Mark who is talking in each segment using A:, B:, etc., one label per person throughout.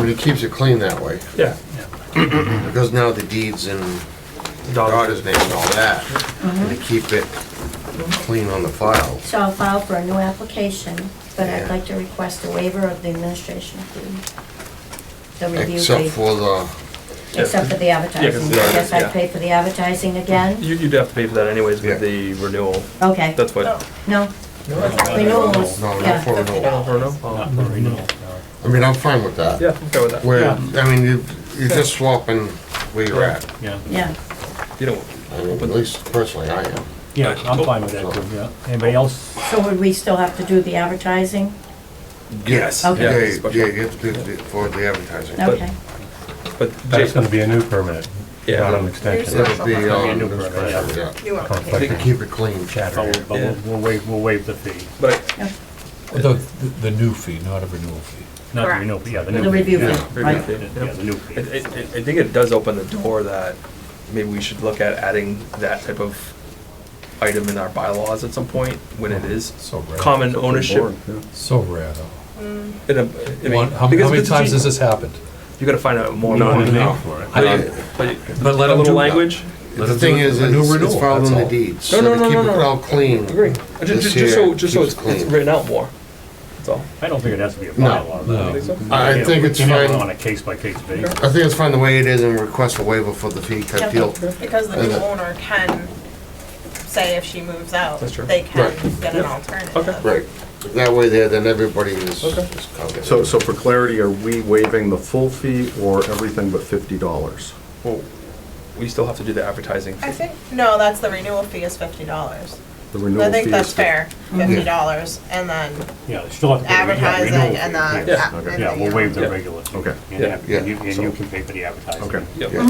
A: he keeps it clean that way,
B: Yeah,
A: because now the deeds in
B: the daughter.
A: daughter's name and all that,
C: Mm-hmm.
A: and to keep it clean on the file.
C: So I'll file for a new application, but I'd
A: Yeah.
C: like to request a waiver of the administration fee. The review
A: Except
C: fee,
A: for the,
C: except for the advertising.
B: the-
C: Yes,
B: yeah.
C: I pay for the advertising again?
B: You, you'd have to pay for that anyways
A: Yeah.
B: with the renewal.
C: Okay,
B: That's what.
C: no, renewal is,
A: no, not
C: yeah.
A: for renewal.
B: Or no? Oh,
D: Not for renewal.
A: I mean, I'm fine with that.
B: Yeah, I'm okay with that.
A: Where, I mean, you, you're just swapping where you're at.
D: Yeah,
C: Yeah,
B: You don't,
A: I mean, at least personally, I am.
D: yeah, I'm fine with that too, yeah. Anybody else?
C: so would we still have to do the advertising?
A: Yes. Yeah,
C: Okay.
A: yeah,
B: Yeah, special.
A: you have to do it for the advertising.
B: But-
C: Okay,
B: but
E: That's
B: Jason,
E: gonna be a new permit, not an
B: yeah,
E: extension.
A: That'll be, um,
D: New permit, yeah.
A: yeah,
F: New
A: to
F: application.
A: keep it clean.
D: But we'll- but we'll, we'll waive, we'll waive the fee.
B: but I-
G: The, the new fee, not a renewal fee.
D: Not the
F: Correct.
D: renewal, yeah, the new.
C: the review
D: yeah.
C: fee,
B: review
C: right?
B: fee, yeah.
D: Yeah, the new
B: I, I,
D: fee.
B: I- I think it does open the door that maybe we should look at adding that type of item in our bylaws at some point when it is
G: Oh, So rare.
B: common ownership.
G: So rare, though.
B: In a, I mean,
G: One- How
B: because
G: how
B: if
G: many
B: it's a
G: times
B: G-
G: has this happened?
B: You gotta find out more.
D: No,
B: about it.
D: no, for it.
B: But
G: Uh,
B: you- but you-
G: But let
B: a
G: them do
B: little
G: that.
B: language.
G: Let
A: The
G: them
A: thing
G: do
A: is,
G: a new
A: it's it's
G: renewal,
A: filed
G: that's
A: on the
G: all.
A: deeds,
B: No,
A: so
B: no,
A: to
B: no,
A: keep
B: no,
A: it
B: no.
A: all clean.
B: Agree. Uh, Just,
A: This
B: just so,
A: here
B: just so
A: keeps
B: it's, it's
A: clean.
B: written out more. That's all.
D: I don't think it has to be a
A: No,
D: bylaw. but
G: no.
D: it's-
B: I
A: I
D: yeah,
A: think
D: we
A: it's
D: can have it
A: fine.
D: On a case-by-case basis.
A: I think it's fine the way it is and request a waiver for the fee cut deal.
F: Because the new
A: Okay.
F: owner can say if she moves out,
B: That's true.
F: they can
A: Right.
F: get an alternative.
B: Okay.
A: Right. That way there, then everybody is
B: Okay.
A: is covered.
H: So, so for clarity, are we waiving the full fee or everything but fifty dollars?
B: Well, we still have to do the advertising.
F: I think, no, that's the renewal fee is fifty dollars.
H: The
F: I
H: renewal fee
F: think
H: is
F: that's
H: fif-
F: fair, fifty dollars, and then
D: Yeah, you still have to. pay the- yeah,
F: advertising
D: renewal
F: and
D: fee, yeah.
F: the.
B: Yeah,
H: okay.
F: and
D: Yeah, we'll waive
B: Yeah.
D: the regular. fee.
H: Okay.
D: And
B: Yeah.
D: you- And you,
A: Yeah.
D: can pay for the advertising.
H: Okay.
B: Yep.
A: Yeah,
F: Yeah,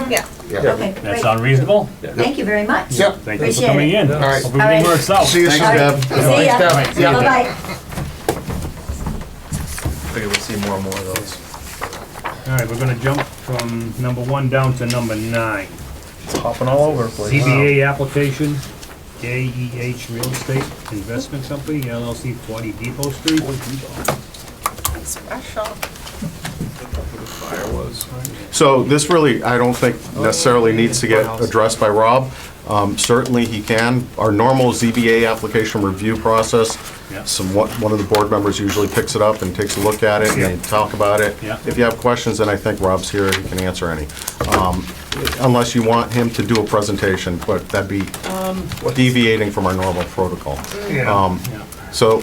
A: yeah.
C: Okay,
D: That
C: great,
D: sound reasonable?
C: thank you very much.
A: Yep.
D: Thank you for
C: Appreciate
D: coming
C: it.
D: in.
A: All right.
D: Hope
C: All right.
D: everything works out.
H: See you soon,
C: All
H: Deb.
C: right, See ya,
A: Thanks, Deb.
C: bye-bye.
B: Figure we'll see more and more of those.
D: All right, we're gonna jump from number one down to number nine.
B: It's hopping all over the place.
D: CBA application, JEH Real Estate Investment Company, LLC, 40 Depot Street.
F: special.
H: So this really, I don't think necessarily needs to get addressed by Rob. Um, Certainly he can. Our normal ZBA application review process,
D: Yeah.
H: some, one one of the board members usually picks it up and takes a look at it and they talk about it.
D: Yeah.
H: If you have questions, then I think Rob's here, he can answer any. Um, Unless you want him to do a presentation, but that'd be deviating from our normal protocol. Um, So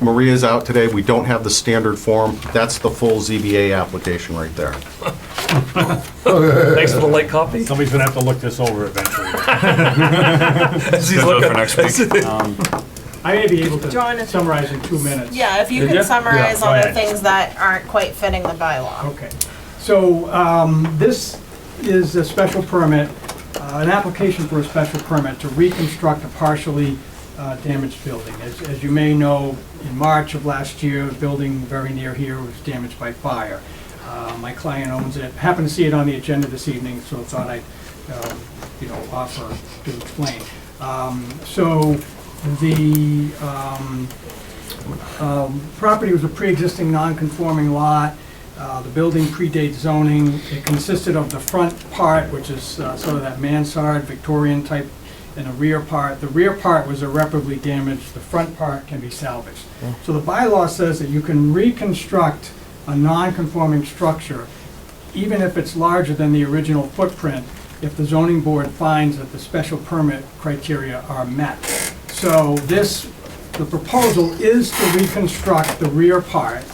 H: Maria's out today, we don't have the standard form. That's the full ZBA application right there.
B: Thanks for the light copy.
D: Somebody's gonna have to look this over eventually.
B: Schedule for next week.
D: Um,
I: I may be able
F: Do you want
I: to
F: to-
I: summarize in two minutes.
F: Yeah, if you
B: Did
F: can
B: ya?
F: summarize
D: Yeah.
F: all the
D: Alright.
F: things that aren't quite fitting the bylaw.
I: Okay. So um, this is a special permit, uh, an application for a special permit to reconstruct a partially uh, damaged building. As as you may know, in March of last year, a building very near here was damaged by fire. Uh, My client owns it, happened to see it on the agenda this evening, so thought I'd, um, you know, offer to explain. Um, So the um, um, property was a pre-existing non-conforming lot. Uh, The building predates zoning. It consisted of the front part, which is uh, sort of that mansard Victorian type, and a rear part. The rear part was irreparably damaged. The front part can be salvaged. So the bylaw says that you can reconstruct a non-conforming structure even if it's larger than the original footprint, if the zoning board finds that the special permit criteria are met. So this, the proposal is to reconstruct the rear part,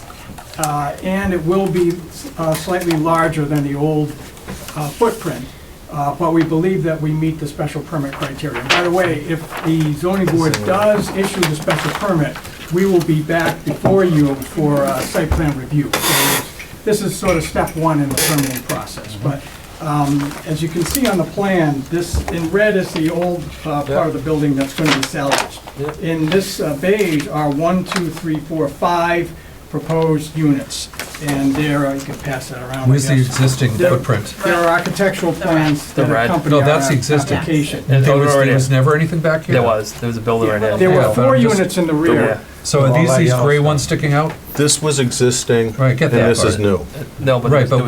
I: uh, and it will be uh, slightly larger than the old uh, footprint, uh, but we believe that we meet the special permit criteria. By the way, if the zoning board does issue the special permit, we will be back before you for uh, site plan review. So it's- This is sort of step one in the permitting process, but um, as you can see on the plan, this, in red is the old uh, part of the building that's going to be salvaged. In this uh, beige are one, two, three, four, five proposed units, and there, uh, you can pass that around. I
G: Where's the
I: guess.
G: existing footprint?
I: There are architectural plans that
B: The red.
I: accompany
G: No,
I: our
G: that's the existing.
I: application.
G: There was,
B: already-
G: there was never anything back here?
B: There was, there was a building right
G: Yeah.
B: now.
I: There
G: Yeah,
I: were
G: but
I: four
G: I'm just-
I: units in the
B: Yeah.
I: rear,
G: So are these, these gray ones sticking out?
H: This was existing.
G: Right, get
H: And
G: that
H: this is
G: part.
H: new.
B: No, but there
G: Right,
B: was-
G: but
B: there was